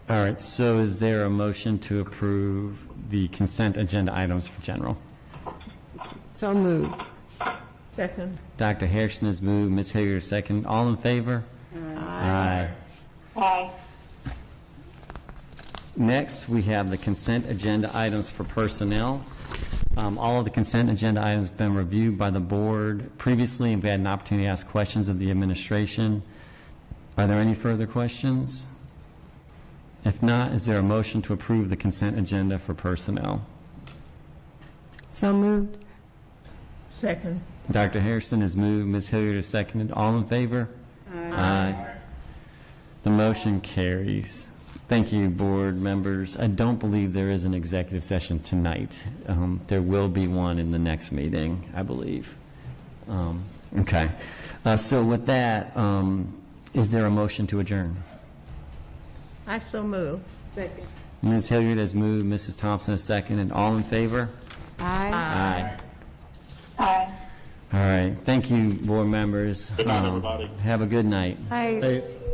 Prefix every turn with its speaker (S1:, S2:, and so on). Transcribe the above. S1: All right, so is there a motion to approve the consent agenda items for general?
S2: So moved.
S3: Second.
S1: Dr. Harrison has moved, Ms. Hager is second. All in favor? Aye.
S4: Aye.
S1: Next, we have the consent agenda items for personnel. Um, All of the consent agenda items have been reviewed by the board previously, and we had an opportunity to ask questions of the administration. Are there any further questions? If not, is there a motion to approve the consent agenda for personnel?
S2: So moved.
S3: Second.
S1: Dr. Harrison has moved, Ms. Hilliard has seconded. All in favor? Aye. The motion carries. Thank you, board members. I don't believe there is an executive session tonight. Um, There will be one in the next meeting, I believe. Um, Okay. Uh, So with that, um, is there a motion to adjourn?
S3: I so move.
S2: Second.
S1: Ms. Hilliard has moved, Mrs. Thompson has seconded. All in favor?
S2: Aye.
S1: Aye.
S4: Aye.
S1: All right. Thank you, board members.
S5: Good night,
S1: Um,
S5: everybody.
S1: Have a good night.
S2: Aye.